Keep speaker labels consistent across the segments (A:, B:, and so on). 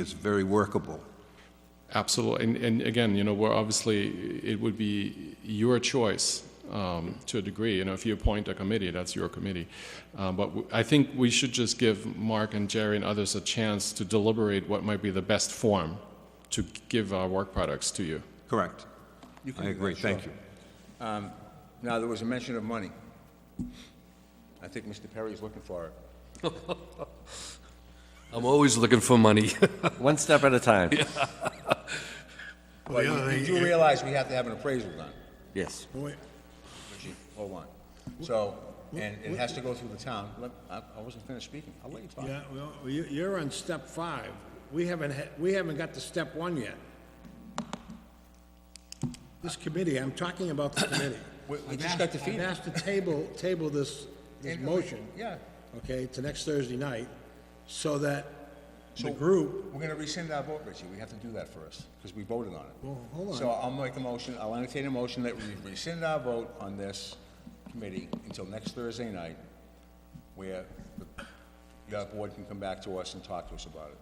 A: is very workable.
B: Absolutely. And, and again, you know, we're obviously, it would be your choice um, to a degree. You know, if you appoint a committee, that's your committee. Um, but w- I think we should just give Mark and Jerry and others a chance to deliberate what might be the best form to give our work products to you.
A: Correct. I agree, thank you.
C: Now, there was a mention of money. I think Mr. Perry is looking for it.
D: I'm always looking for money.
E: One step at a time.
C: But you- you do realize we have to have an appraisal done,
E: Yes.
C: Chief, hold on. So, and it has to go through the town. Let- I I wasn't finished speaking, I'll let you talk.
F: Yeah, well, you, you're on step five. We haven't, had- we haven't got to step one yet. This committee, I'm talking about the committee.
C: We- we
F: I've
C: just
F: asked-
C: got to feed it.
F: I've asked to table, table this, this
C: And-
F: motion.
C: yeah.
F: Okay, to next Thursday night, so that the
C: So-
F: group,
C: We're gonna rescind our vote, Richie, we have to do that first, because we voted on it.
F: Well, hold on.
C: So I'll make a motion, I'll entertain a motion that we rescind our vote on this committee until next Thursday night, where the- your board can come back to us and talk to us about it.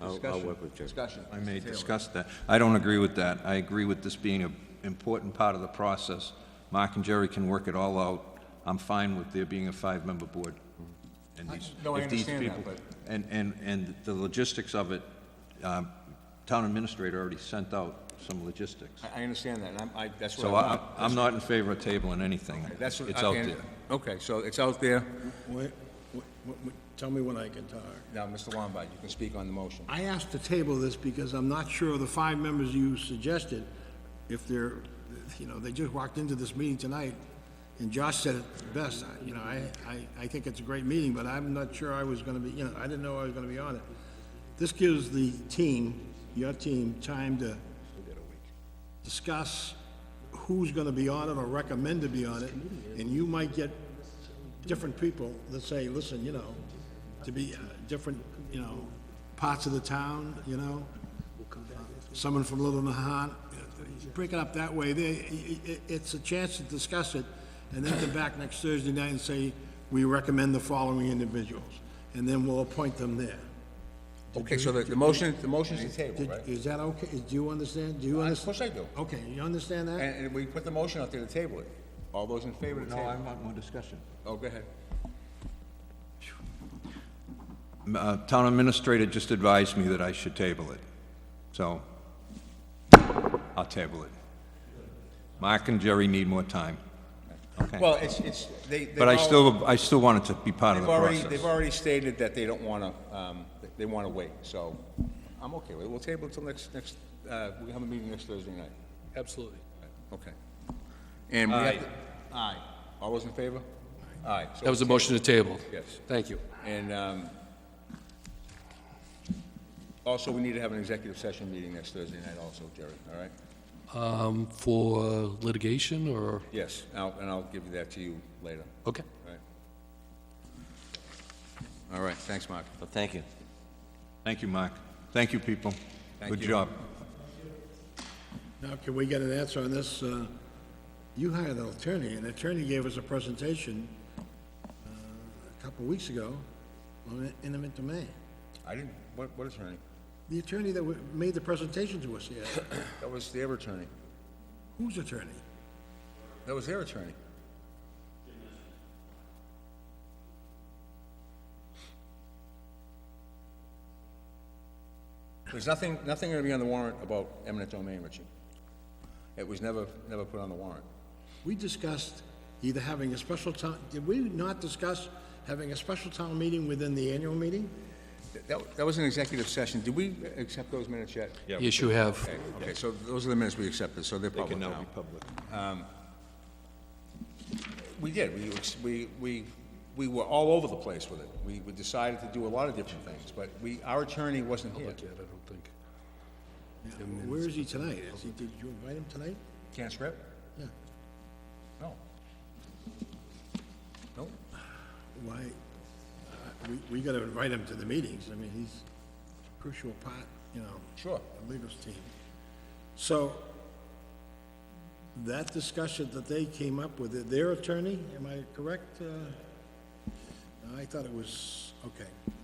E: I'll, I'll
C: Discussion.
E: work with Jerry.
C: Discussion.
A: I may
C: Mr. Taylor.
A: discuss that. I don't agree with that. I agree with this being an important part of the process. Mark and Jerry can work it all out. I'm fine with there being a five-member board. And these-
C: No, I
A: if these
C: understand that,
A: people-
C: but-
A: And, and, and the logistics of it, um, town administrator already sent out some logistics.
C: I, I understand that, and I'm, I, that's what
A: So
C: I want.
A: I, I'm not in favor of tabling anything.
C: That's what.
A: It's out
C: and-
A: there.
C: Okay, so it's out there.
F: wait, wait, wait, tell me when I can talk.
C: Now, Mr. Lombard, you can speak on the motion.
F: I asked to table this because I'm not sure of the five members you suggested, if they're, you know, they just walked into this meeting tonight, and Josh said it best, I- you know, I, I, I think it's a great meeting, but I'm not sure I was gonna be, you know, I didn't know I was gonna be on it. This gives the team, your team, time to discuss who's gonna be on it or recommend to be on it, and you might get different people that say, listen, you know, to be uh, different, you know, parts of the town, you know? Someone from Little Nahat, break it up that way, they, i- i- it's a chance to discuss it, and then come back next Thursday night and say, we recommend the following individuals, and then we'll appoint them there.
C: Okay, so the, the motion, the motion's to table,
F: Did-
C: right?
F: Is that okay, do you understand, do you
C: Of
F: understand?
C: course I do.
F: Okay, you understand that?
C: And, and we put the motion out there to table it. All those in favor to
A: No, I
C: table?
A: want more discussion.
C: Oh, go ahead.
A: Uh, Town administrator just advised me that I should table it, so I'll table it. Mark and Jerry need more time. Okay.
C: Well, it's, it's, they, they've
A: But I
C: all-
A: still, I still want it to be part of
C: They've
A: the
C: already, they've
A: process.
C: already stated that they don't wanna, um, they- they wanna wait, so I'm okay with it. We'll table it till next, next, uh, we have a meeting next Thursday night.
D: Absolutely.
C: Okay. And we have, to- aye. All those in favor? Aye. So
D: That was a motion to table.
C: Yes.
D: Thank you.
C: And um, also, we need to have an executive session meeting next Thursday night also, Jerry, all right?
D: Um, For litigation or,
C: Yes, I'll- and I'll give that to you later,
D: okay.
C: all right? All right, thanks, Mark.
E: Well, thank you.
A: Thank you, Mark. Thank you, people.
C: Thank
A: Good
C: you.
A: job.
F: Now, can we get an answer on this? Uh, You hired an attorney, and the attorney gave us a presentation uh, a couple of weeks ago on eminent domain.
C: I didn't, what what attorney?
F: The attorney that wa- made the presentation to us, yes.
C: That was their attorney.
F: Whose attorney?
C: That was their attorney. There's nothing, nothing going to be on the warrant about eminent domain, Richie. It was never, never put on the warrant.
F: We discussed either having a special town, did we not discuss having a special town meeting within the annual meeting?
C: That, that was an executive session. Did we accept those minutes yet?
D: Yes, you have.
C: Okay, Okay, so those are the minutes we accepted, so they're
A: They
C: public
A: can now
C: now. Um,
A: be public.
C: We did, we, ex- we, we, we were all over the place with it. We, we decided to do a lot of different things, but we, our attorney wasn't here.
F: Where is he tonight? Is he, did you invite him tonight?
C: Can't script?
F: Yeah.
C: No. Nope.
F: Why, uh, we, we gotta invite him to the meetings, I mean, he's crucial part, you know.
C: Sure.
F: The legal team. So, that discussion that they came up with, their attorney, am I correct? uh, I thought it was, okay.